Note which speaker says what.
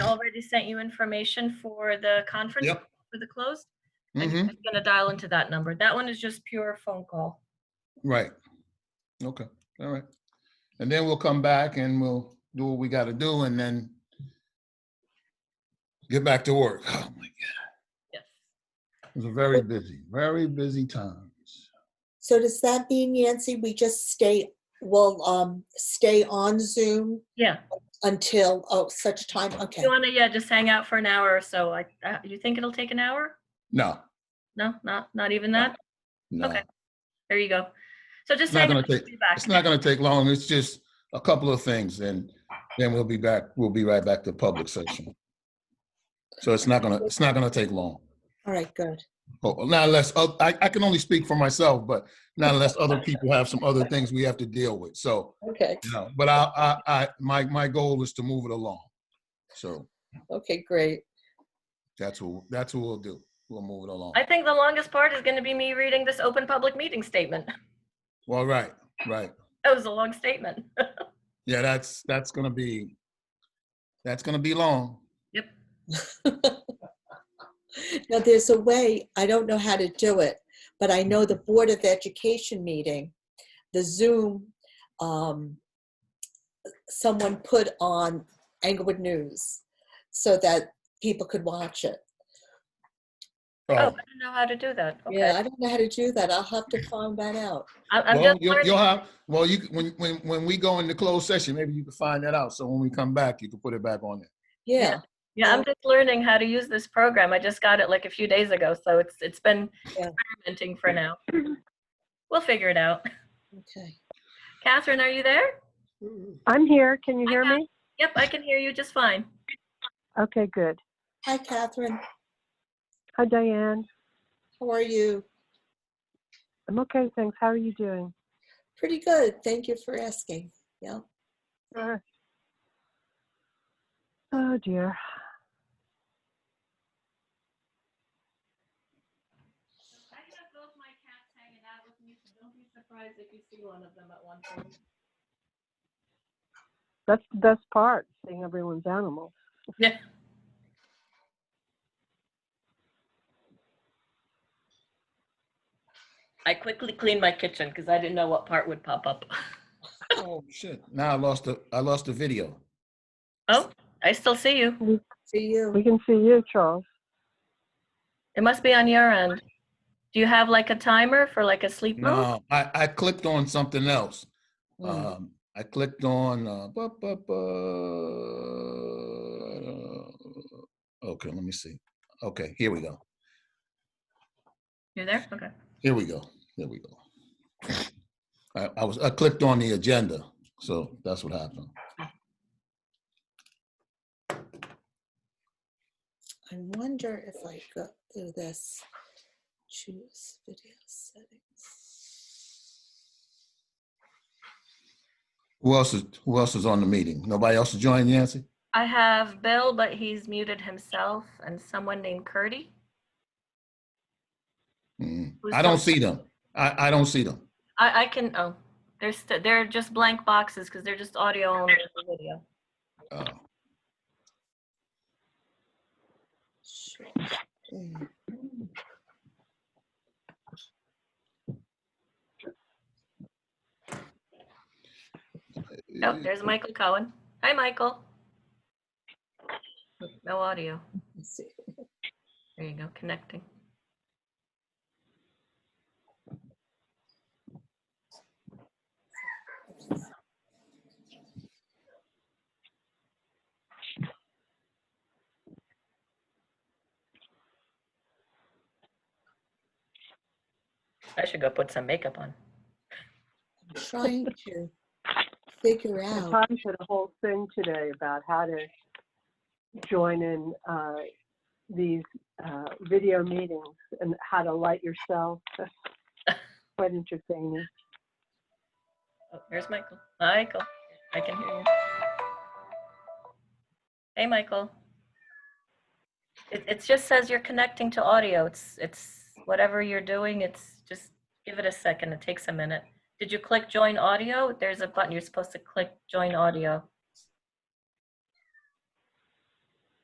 Speaker 1: already sent you information for the conference,
Speaker 2: Yep.
Speaker 1: for the closed. I'm
Speaker 2: hmm
Speaker 1: just gonna dial into that number. That one is just pure phone call.
Speaker 2: Right. Okay, all right. And then we'll come back and we'll do what we gotta do and then get back to work. Oh my God,
Speaker 1: Yes.
Speaker 2: It's a very busy, very busy times.
Speaker 3: So does that mean, Yancy, we just stay, will um, stay on Zoom
Speaker 1: Yeah,
Speaker 3: until oh, such time? Okay.
Speaker 1: you wanna, yeah, just hang out for an hour or so. I, uh, you think it'll take an hour?
Speaker 2: No,
Speaker 1: No, not, not even that?
Speaker 2: no.
Speaker 1: Okay. There you go. So just
Speaker 2: It's not
Speaker 1: hang
Speaker 2: gonna
Speaker 1: out, we'll
Speaker 2: take-
Speaker 1: be back.
Speaker 2: It's not gonna take long. It's just a couple of things and then we'll be back, we'll be right back to public session. So it's not gonna, it's not gonna take long.
Speaker 3: All right, good.
Speaker 2: Oh, Not unless, oth- I, I can only speak for myself, but not unless other people have some other things we have to deal with. So,
Speaker 3: Okay,
Speaker 2: you know, but I, I, I, my, my goal is to move it along. So
Speaker 3: okay, great.
Speaker 2: that's what, that's what we'll do. We'll move it along.
Speaker 1: I think the longest part is gonna be me reading this open public meeting statement.
Speaker 2: Well, right, right.
Speaker 1: That was a long statement.
Speaker 2: Oh. Yeah, that's, that's gonna be, that's gonna be long.
Speaker 3: Now, there's a way, I don't know how to do it, but I know the Board of Education meeting, the Zoom, um, someone put on Englewood News so that people could watch it.
Speaker 1: Oh, I
Speaker 2: Oh,
Speaker 1: didn't know how to do that.
Speaker 3: Yeah,
Speaker 1: Okay.
Speaker 3: I don't know how to do that. I'll have to find that out.
Speaker 1: I- I'm
Speaker 2: well,
Speaker 1: just
Speaker 2: you'll,
Speaker 1: learning.
Speaker 2: you'll have, well, you, when, when, when we go into closed session, maybe you can find that out. So when we come back, you can put it back on there.
Speaker 3: Yeah,
Speaker 1: Yeah, I'm just learning how to use this program. I just got it like a few days ago, so it's, it's been
Speaker 3: Yeah.
Speaker 1: experimenting for now. We'll figure it out.
Speaker 3: okay.
Speaker 1: Catherine, are you there?
Speaker 4: I'm here. Can you
Speaker 1: Hi,
Speaker 4: hear
Speaker 1: Matt.
Speaker 4: me?
Speaker 1: Yep, I can hear you just fine.
Speaker 4: Okay, good.
Speaker 3: Hi, Catherine.
Speaker 4: Hi, Diane.
Speaker 3: How are you?
Speaker 4: I'm okay, thanks. How are you doing?
Speaker 3: Pretty good. Thank you for asking. Yeah.
Speaker 4: Uh, Oh, dear.
Speaker 1: I have both my cats hanging out with me, so don't be surprised if you see one of them at one point.
Speaker 4: That's the best part, seeing everyone's animals.
Speaker 1: Yeah. I quickly cleaned my kitchen because I didn't know what part would pop up.
Speaker 2: Oh, shit. Now I lost the, I lost the video.
Speaker 1: Oh, I still see you.
Speaker 3: For you.
Speaker 4: We can see you, Charles.
Speaker 1: It must be on your end. Do you have like a timer for like a sleep mode?
Speaker 2: No, I, I clicked on something else.
Speaker 3: Mm.
Speaker 2: Um, I clicked on, uh, bu- bu- bu- okay, let me see. Okay, here we go.
Speaker 1: You're there? Okay.
Speaker 2: Here we go. Here we go. I, I was, I clicked on the agenda, so that's what happened.
Speaker 3: I wonder if I go through this. Choose video settings.
Speaker 2: Who else is, who else is on the meeting? Nobody else is joining, Yancy?
Speaker 1: I have Bill, but he's muted himself, and someone named Curdy.
Speaker 2: Mm.
Speaker 1: Who's
Speaker 2: I don't
Speaker 1: coming?
Speaker 2: see them. I, I don't see them.
Speaker 1: I, I can, oh, there's, st- they're just blank boxes because they're just audio only and video.
Speaker 2: Oh,
Speaker 3: Sure. Mm.
Speaker 1: Oh, there's Michael Cohen. Hi, Michael. No audio.
Speaker 3: Let's see.
Speaker 1: There you go, connecting. I should go put some makeup on.
Speaker 3: I'm trying to figure
Speaker 4: I
Speaker 3: out.
Speaker 4: Tom did a whole thing today about how to join in uh, these uh, video meetings and how to light yourself. Quite entertaining.
Speaker 1: Oh, there's Michael. Michael, I can hear you. Hey, Michael. It, it just says you're connecting to audio. It's, it's whatever you're doing, it's just give it a second. It takes a minute. Did you click join audio? There's a button you're supposed to click join audio.